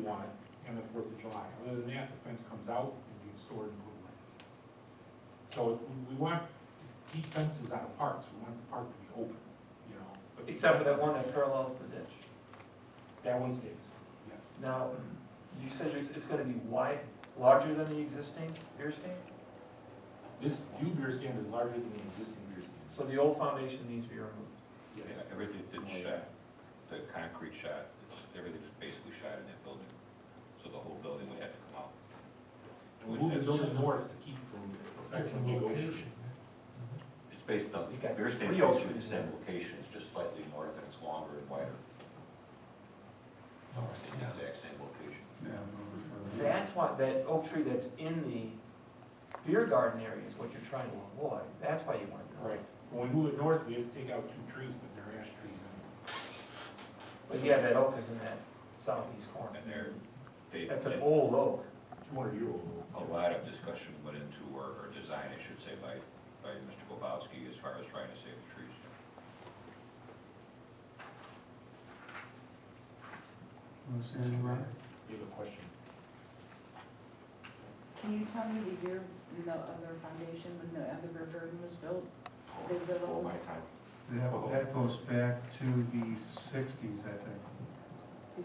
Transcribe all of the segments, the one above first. want it, and the Fourth of July. Other than that, the fence comes out and gets stored in Blue Lake. So we, we want to keep fences out of parks, we want the park to be open, you know, but Except for that one that parallels the ditch. that one stays, yes. Now, you said it's, it's gonna be wide, larger than the existing beer stand? This new beer stand is larger than the existing beer stand. So the old foundation needs to be removed. Yes. Everything did Oh, shot, the concrete shot, it's, everything was basically shot in that building. So the whole building would have to come out. And we move the building north to keep from affecting the location. It's based on, You got beer stand three is in the alternatives. same location, it's just slightly north and it's longer and wider. So it's in the exact same location. That's why, that oak tree that's in the beer garden area is what you're trying to avoid. That's why you want it north. Right, when we move it north, we have to take out two trees, but they're ash trees. and But yeah, that oak is in that southeast corner. And there, they, That's an old oak. Two hundred year old. Oh, a lot of discussion went into, or, or design, I should say, by, by Mr. Bobowski as far as trying to save the trees. Want to say anything about it? You have a question? Can you tell me the year the other foundation, when the other beer garden was built? Big All my Villas, time. That, that goes back to the sixties, I think.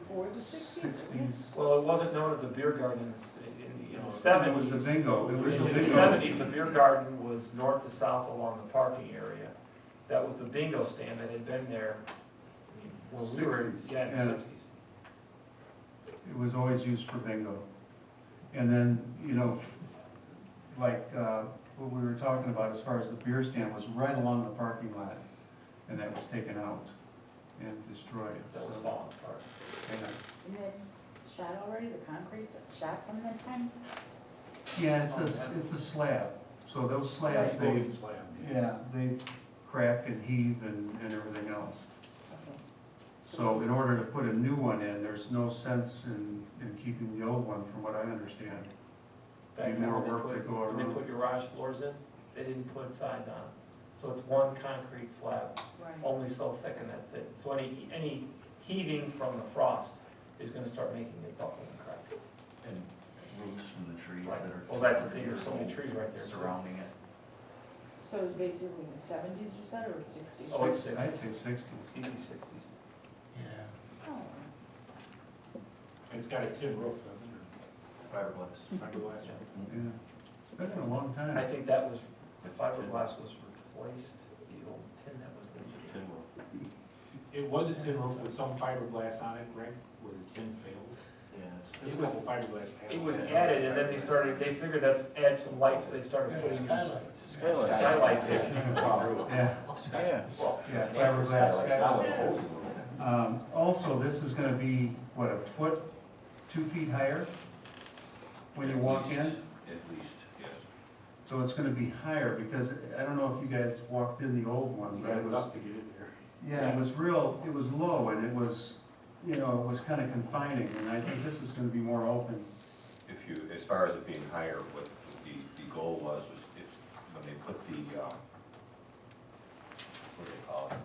before the sixties? Sixties. Well, it wasn't known as a beer garden in the, s- in the- No, in the It was seventies. the bingo, it was the In the bingo. seventies, the beer garden was north to south along the parking area. That was the bingo stand that had been there, I mean, when we were, 60s, yeah, in the yeah. sixties. It was always used for bingo. And then, you know, like, uh, what we were talking about as far as the beer stand was right along the parking lot. And that was taken out and destroyed. That was so- falling apart. yeah. And it's shot already, the concrete's shot from that time? Yeah, it's a, it's a slab, so those slabs, they, Floating slab. yeah, they crack and heave and, and everything else. Okay. So in order to put a new one in, there's no sense in, in keeping the old one, from what I understand. Back Need then, more when they work to put, go when they around. put garage floors in, they didn't put size on it. So it's one concrete slab, Right, only so thick and that's it. So any, any heaving from the frost is gonna start making it buckle and crack. and roots from the trees that are. Right. Well, that's the thing, there's so many trees right there. Surrounding it. so it's basically the seventies you said, or sixties? Oh, it's Six- I'd say sixties. Easy sixties. Oh, And It's got a tin roof, doesn't Fiberglass. it? Fiberglass. Yeah, it's been a long time. I think that was, the fiberglass was replaced, the old tin that was there. It was a tin roof with some fiberglass on it, right, where the tin failed. Yeah, it's, There's a couple fiberglass panels. It was added, and then they started, they figured that's, add some lights, they started putting Skylights. skylights in. Yeah, Yeah. yeah, fiberglass Now skylight. it's old. Um, also, this is gonna be, what, a foot, two feet higher when you walk in? At least, yes. So it's gonna be higher, because I don't know if you guys walked in the old one, You but got it it was, up to get it there. yeah, it was real, it was low, and it was, you know, it was kinda confining, and I think this is gonna be more open. If you, as far as it being higher, what the, the goal was, was if, when they put the, um, what do they call it?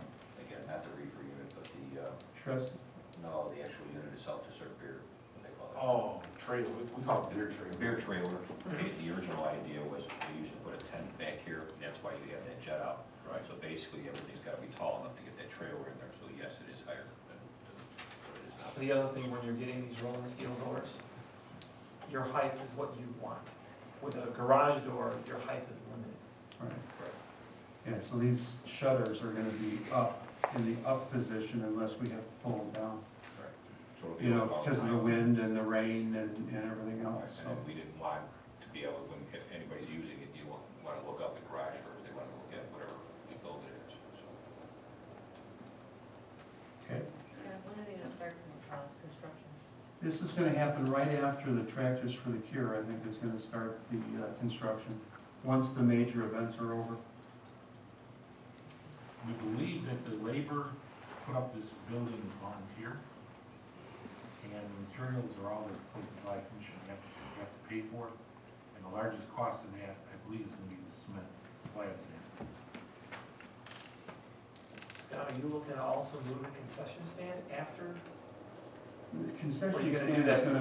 Again, not the reefer unit, but the, uh, Trust, no, the actual unit itself to serve beer, what they call Oh, trailer, we- we call it beer trailer. it. Beer trailer, okay, the original idea was they used to put a tent back here, and that's why you have that jet out. Right. So basically, everything's gotta be tall enough to get that trailer in there, so yes, it is higher than, than what it is now. The other thing, when you're getting these rolling steel doors, your height is what you want. With a garage door, your height is limited. right. Yeah, so these shutters are gonna be up, in the up position unless we have to pull them down, So it'll be you know, about because of the nine. wind and the rain and, and everything Right, else, so. And we didn't want to be able, when, if anybody's using it, you want, want to look up the garage or if they want to look at whatever the building is, so. Okay, Scott, when are they gonna start uh, construction? this is gonna happen right after the Tractors for the Cure, I think, is gonna start the, uh, construction, once the major events are over. We believe that the labor put up this building is volunteer, and the materials are all replaced by commission, you have to, you have to pay for it. And the largest cost in that, I believe, is gonna be the cement slabs in it. Scott, are you looking to also move the concession stand after The Concession gonna do stand is that gonna